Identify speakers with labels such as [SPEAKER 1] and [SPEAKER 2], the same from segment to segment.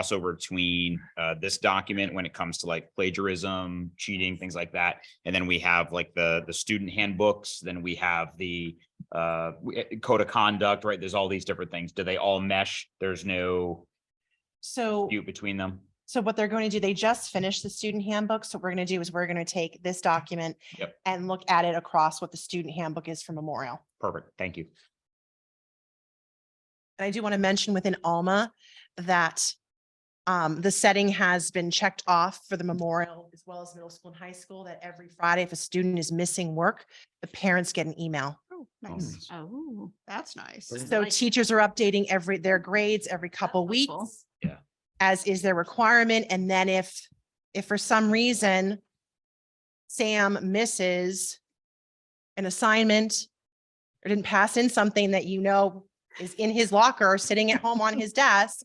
[SPEAKER 1] crossover between uh, this document when it comes to like plagiarism, cheating, things like that. And then we have like the, the student handbooks, then we have the uh, we- eh, code of conduct, right? There's all these different things. Do they all mesh? There's no
[SPEAKER 2] So,
[SPEAKER 1] dispute between them?
[SPEAKER 2] so what they're going to do, they just finished the student handbook. So what we're going to do is we're going to take this document
[SPEAKER 1] Yep.
[SPEAKER 2] and look at it across what the student handbook is for Memorial.
[SPEAKER 1] Perfect. Thank you.
[SPEAKER 2] And I do want to mention within Alma that um, the setting has been checked off for the memorial as well as middle school and high school, that every Friday, if a student is missing work, the parents get an email.
[SPEAKER 3] Oh,
[SPEAKER 1] nice.
[SPEAKER 3] nice. Oh, that's nice.
[SPEAKER 2] So teachers are updating every, their grades every couple
[SPEAKER 3] helpful.
[SPEAKER 2] weeks.
[SPEAKER 1] Yeah.
[SPEAKER 2] As is their requirement. And then if, if for some reason Sam misses an assignment or didn't pass in something that you know is in his locker or sitting at home on his desk,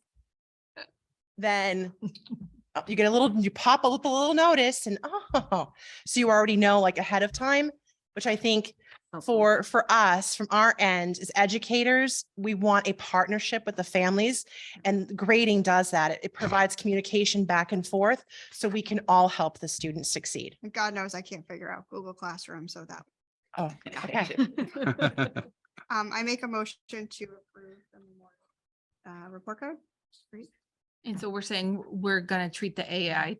[SPEAKER 2] then oh, you get a little, you pop up a little notice and, oh, so you already know like ahead of time, which I think for for us from our end as educators we want a partnership with the families and grading does that It- it provides communication back and forth so we can all help the students succeed
[SPEAKER 3] And God knows I can't figure out Google Classroom, so that.
[SPEAKER 2] oh okay
[SPEAKER 3] Um, I make a motion to approve the memorial uh, report card. Great.
[SPEAKER 4] And so we're saying we're gonna treat the AI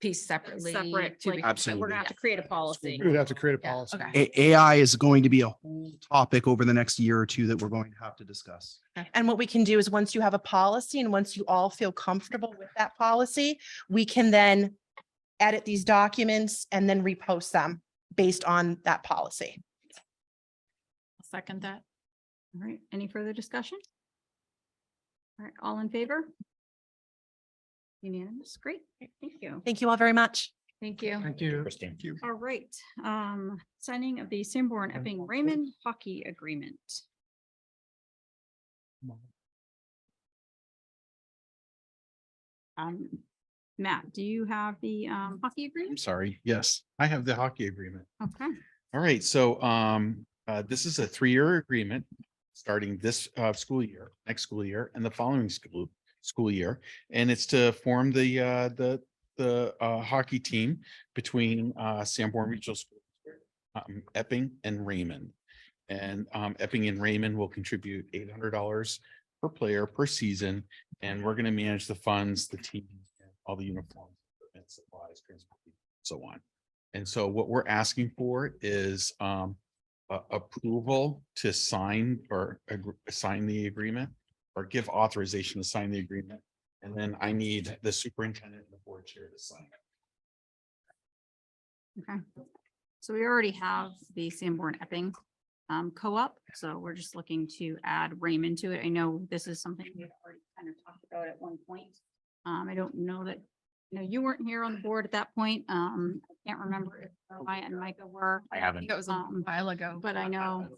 [SPEAKER 4] piece separately.
[SPEAKER 5] Separate,
[SPEAKER 4] to be-
[SPEAKER 5] like, but we're
[SPEAKER 6] Absolutely.
[SPEAKER 5] gonna have to create a policy.
[SPEAKER 6] We would have to create a
[SPEAKER 4] Yeah,
[SPEAKER 6] policy.
[SPEAKER 4] okay.
[SPEAKER 5] Right.
[SPEAKER 6] A- AI is going to be a whole topic over the next year or two that we're going to have to discuss.
[SPEAKER 2] and what we can do is once you have a policy and once you all feel comfortable with that policy we can then edit these documents and then repost them based on that policy
[SPEAKER 4] I'll Second that.
[SPEAKER 5] All right, any further discussion? All right, all in favor? Unanimous, great, thank you.
[SPEAKER 2] thank you all very much
[SPEAKER 4] Thank you.
[SPEAKER 6] Thank you.
[SPEAKER 1] Christine.
[SPEAKER 5] All right, um, signing of the Sanborn Epping Raymond Hockey Agreement. Um, Matt, do you have the um hockey
[SPEAKER 7] I'm
[SPEAKER 5] agreement?
[SPEAKER 7] sorry. Yes, I have the hockey agreement.
[SPEAKER 5] Okay,
[SPEAKER 7] All right, so um, uh, this is a three-year agreement starting this uh school year, next school year, and the following school school year. And it's to form the uh, the the uh hockey team between uh Sanborn Regional School, District, um, Epping and Raymond. And um, Epping and Raymond will contribute eight hundred dollars per player per season, and we're gonna manage the funds, the team, all the uniforms, equipment, supplies, transportation, so on. And so what we're asking for is um a- approval to sign or agr- sign the agreement or give authorization to sign the agreement. And then I need the superintendent and the board chair to sign. it.
[SPEAKER 5] okay. So we already have the Sanborn Epping um co-op, so we're just looking to add Raymond to it. I know this is something we've already kind of talked about at one point. Um, I don't know that, you know, you weren't here on the board at that point. Um, I can't remember if Maya and Micah were.
[SPEAKER 1] I haven't.
[SPEAKER 4] That was a
[SPEAKER 5] Um,
[SPEAKER 4] while ago.
[SPEAKER 5] But I know,
[SPEAKER 8] know.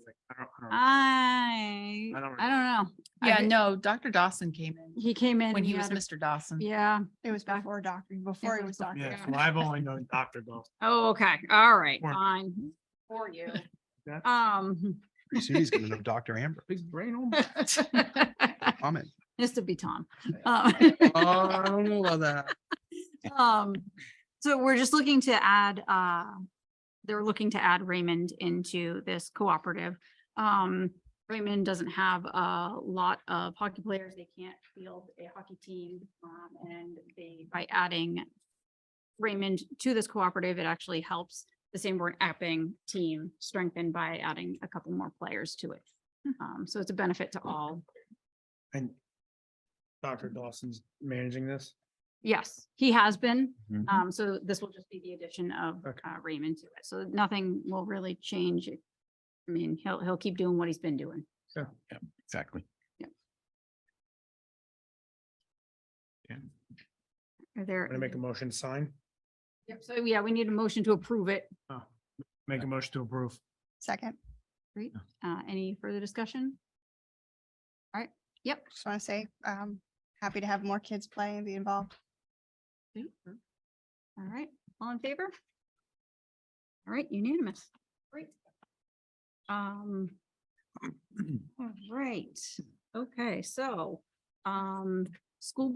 [SPEAKER 5] I,
[SPEAKER 8] I don't
[SPEAKER 5] I don't know. I
[SPEAKER 4] Yeah,
[SPEAKER 5] re-
[SPEAKER 4] no, Dr. Dawson came in
[SPEAKER 5] He came in.
[SPEAKER 4] when he was
[SPEAKER 5] had a-
[SPEAKER 4] Mr. Dawson.
[SPEAKER 5] Yeah.
[SPEAKER 3] It was
[SPEAKER 5] Back-
[SPEAKER 3] before doctor, before he was doctor.
[SPEAKER 8] Yeah, well, I've only known Dr. Dawson.
[SPEAKER 5] Oh, okay. All right,
[SPEAKER 8] Or-
[SPEAKER 5] fine. For you.
[SPEAKER 8] Yeah.
[SPEAKER 5] Um,
[SPEAKER 6] Pretty soon he's going to know Dr. Amber.
[SPEAKER 8] His brain on.
[SPEAKER 6] Comment.
[SPEAKER 5] this would be Tom.
[SPEAKER 6] Oh, I
[SPEAKER 5] Um,
[SPEAKER 6] don't know about that.
[SPEAKER 5] um, So we're just looking to add, uh, they're looking to add Raymond into this cooperative. Um, Raymond doesn't have a lot of hockey players. They can't field a hockey team. Um, and they, by adding Raymond to this cooperative, it actually helps the Sanborn Epping team strengthen by adding a couple more players to it. Um, so it's a benefit to all.
[SPEAKER 8] And Dr. Dawson's managing this.
[SPEAKER 5] Yes, he has been.
[SPEAKER 7] Mhm.
[SPEAKER 5] Um, so this will just be the addition of
[SPEAKER 8] Mm-hmm. Okay.
[SPEAKER 5] uh, Raymond to it. So nothing will really change. I mean, he'll, he'll keep doing what he's been doing.
[SPEAKER 7] Exactly.
[SPEAKER 5] Are there?
[SPEAKER 8] I'm gonna make a motion to sign.
[SPEAKER 5] Yep, So yeah, we need a motion to approve it.
[SPEAKER 8] Oh, Make a motion to approve.
[SPEAKER 3] Second,
[SPEAKER 5] Uh, any further discussion? All right, yep.
[SPEAKER 3] just want to say, um, happy to have more kids play and be involved.
[SPEAKER 5] All right, all in favor? All right, unanimous. Great. Um. All right, okay, so, um, school